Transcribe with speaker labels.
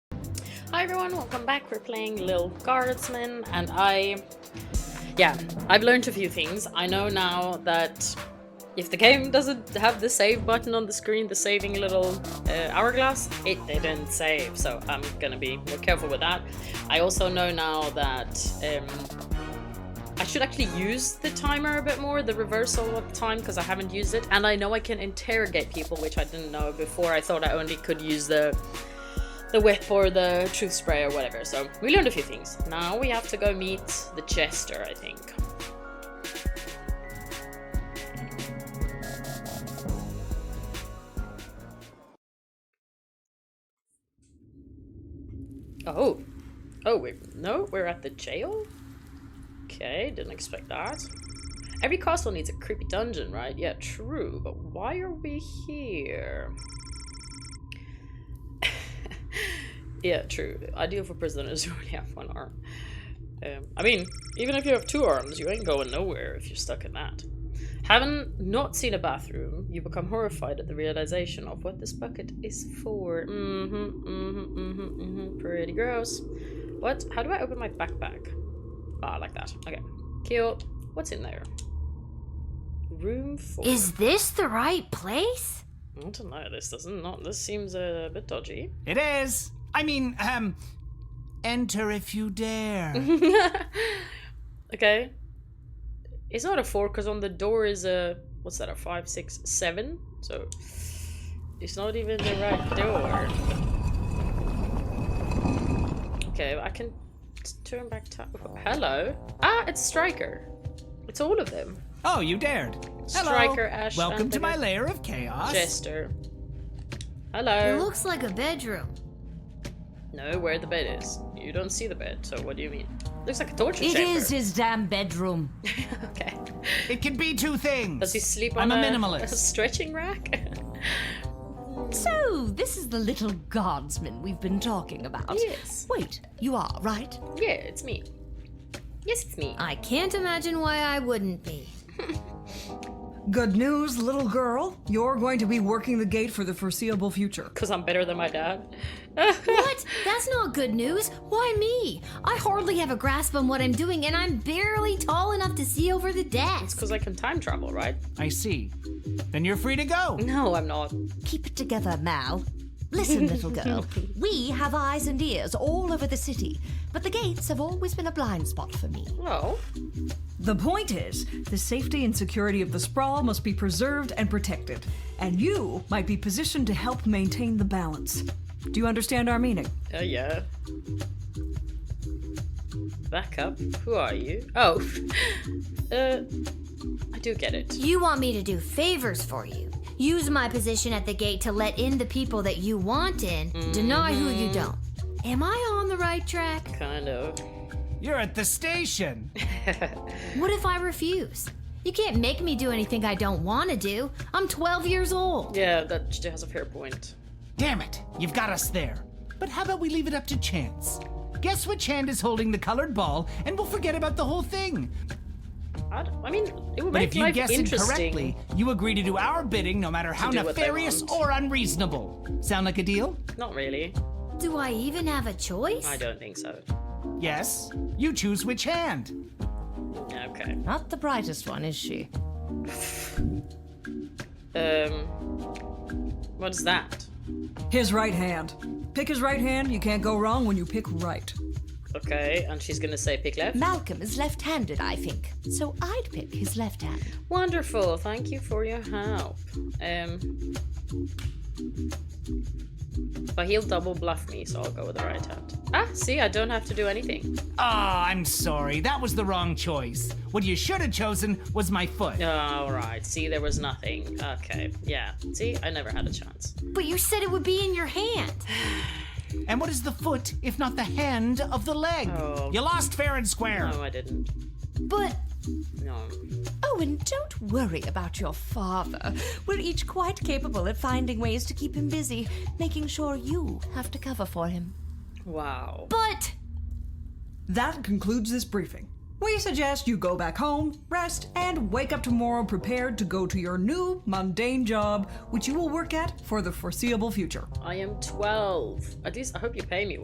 Speaker 1: Hi everyone, welcome back. We're playing Lil Guardsman, and I. Yeah, I've learned a few things. I know now that if the game doesn't have the save button on the screen, the saving little uh, hourglass, it didn't save, so I'm gonna be more careful with that. I also know now that um, I should actually use the timer a bit more, the reversal of time, because I haven't used it, and I know I can interrogate people, which I didn't know before. I thought I only could use the the whip or the truth spray or whatever. So we learned a few things. Now we have to go meet the jester, I think. Oh, oh wait, no, we're at the jail. Okay, didn't expect that. Every castle needs a creepy dungeon, right? Yeah, true. But why are we here? Yeah, true. Ideal for prisoners who only have one arm. Um, I mean, even if you have two arms, you ain't going nowhere if you're stuck in that. Having not seen a bathroom, you become horrified at the realization of what this bucket is for. Mm-hmm, mm-hmm, mm-hmm, mm-hmm. Pretty gross. What? How do I open my backpack? Ah, like that. Okay. Kill. What's in there? Room four.
Speaker 2: Is this the right place?
Speaker 1: I don't know. This doesn't not. This seems a bit dodgy.
Speaker 3: It is. I mean, um, enter if you dare.
Speaker 1: Okay. It's not a four because on the door is a what's that? A five, six, seven. So it's not even the right door. Okay, I can t- turn back time. Hello. Ah, it's Striker. It's all of them.
Speaker 3: oh, you dared. Hello.
Speaker 1: Striker, Ash,
Speaker 3: Welcome
Speaker 1: and
Speaker 3: to my
Speaker 1: Digger.
Speaker 3: lair of chaos.
Speaker 1: Jester.
Speaker 2: It
Speaker 1: Hello.
Speaker 2: looks like a bedroom.
Speaker 1: no, where the bed is. You don't see the bed. So what do you mean? Looks like a torture
Speaker 4: It
Speaker 1: chamber.
Speaker 4: is his damn bedroom.
Speaker 1: okay.
Speaker 3: It can be two things.
Speaker 1: Does he sleep on
Speaker 3: I'm a
Speaker 1: a
Speaker 3: minimalist.
Speaker 1: stretching rack?
Speaker 4: So, this is the little guardsman we've been talking about.
Speaker 1: Yes.
Speaker 4: Wait, you are, right?
Speaker 1: Yeah, it's me. Yes, it's me.
Speaker 2: I can't imagine why I wouldn't be.
Speaker 5: Good news, little girl. You're going to be working the gate for the foreseeable future.
Speaker 1: Because I'm better than my dad.
Speaker 2: What? That's not good news. Why me? I hardly have a grasp on what I'm doing, and I'm barely tall enough to see over the desk.
Speaker 1: Because I can time travel, right?
Speaker 3: I see. Then you're free to go.
Speaker 1: No, I'm not.
Speaker 4: Keep it together, Mal. Listen, little girl. We have eyes and ears all over the city, but the gates have always been a blind spot for me.
Speaker 1: No.
Speaker 5: The point is, the safety and security of the sprawl must be preserved and protected, and you might be positioned to help maintain the balance. Do you understand our meaning?
Speaker 1: Uh, yeah. Back up. Who are you? Oh. uh, I do get it.
Speaker 2: You want me to do favors for you. Use my position at the gate to let in the people that you want in, deny who you don't. Am I on the right track?
Speaker 1: Kind of.
Speaker 3: You're at the station.
Speaker 2: What if I refuse? You can't make me do anything I don't want to do. I'm 12 years old.
Speaker 1: Yeah, that j- has a fair point.
Speaker 3: Damn it. You've got us there. But how about we leave it up to chance? Guess which hand is holding the colored ball, and we'll forget about the whole thing.
Speaker 1: I, d- I mean, it would
Speaker 3: But
Speaker 1: make
Speaker 3: if you
Speaker 1: life
Speaker 3: guess
Speaker 1: interesting.
Speaker 3: incorrectly, you agree to do our bidding no matter how
Speaker 1: do what they
Speaker 3: nefarious
Speaker 1: want.
Speaker 3: or unreasonable. Sound like a deal?
Speaker 1: Not really.
Speaker 2: Do I even have a choice?
Speaker 1: I don't think so.
Speaker 3: Yes. You choose which hand.
Speaker 1: Okay.
Speaker 4: Not the brightest one, is she?
Speaker 1: Um. What's that?
Speaker 5: His right hand. Pick his right hand, you can't go wrong when you pick right.
Speaker 1: Okay, and she's gonna say pick left.
Speaker 4: Malcolm is left handed, I think, so I'd pick his left hand.
Speaker 1: Wonderful. Thank you for your help. Um, but he'll double bluff me, so I'll go with the right hand. Ah, see, I don't have to do anything.
Speaker 3: Ah, I'm sorry. That was the wrong choice. What you should have chosen was my foot.
Speaker 1: All right. See, there was nothing. Okay. Yeah. See, I never had a chance.
Speaker 2: But you said it would be in your hand.
Speaker 3: And what is the foot, if not the hand, of the leg? You lost fair and square.
Speaker 1: No, I didn't.
Speaker 4: But
Speaker 1: No.
Speaker 4: Oh, and don't worry about your father. We're each quite capable at finding ways to keep him busy, making sure you have to cover for him.
Speaker 1: Wow.
Speaker 2: But
Speaker 5: That concludes this briefing. We suggest you go back home, rest, and wake up tomorrow prepared to go to your new, mundane job, which you will work at for the foreseeable future.
Speaker 1: I am 12. At least I hope you pay me